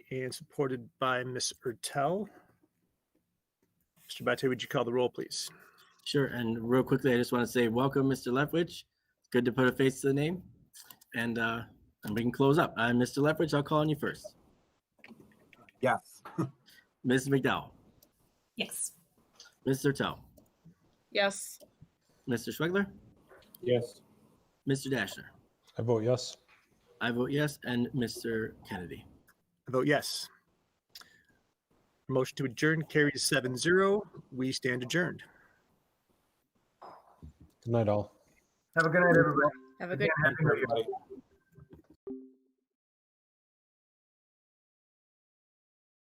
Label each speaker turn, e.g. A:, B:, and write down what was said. A: and supported by Ms. Ertel. Mr. Bate, would you call the roll, please?
B: Sure. And real quickly, I just want to say welcome, Mr. Lefwich. Good to put a face to the name. And uh, and we can close up. Uh, Mr. Lefwich, I'll call on you first.
C: Yes.
B: Ms. McDowell,
D: Yes.
B: Mr. Tell,
E: Yes.
B: Mr. Schwegler,
F: Yes.
B: Mr. Dashner.
F: I vote yes.
B: I vote yes, and Mr. Kennedy.
A: I vote yes. Motion to adjourn carries seven zero. We stand adjourned.
F: Good night, all.
C: Have a good night, everybody.
E: Have a good
C: Happy New Year.
F: Bye.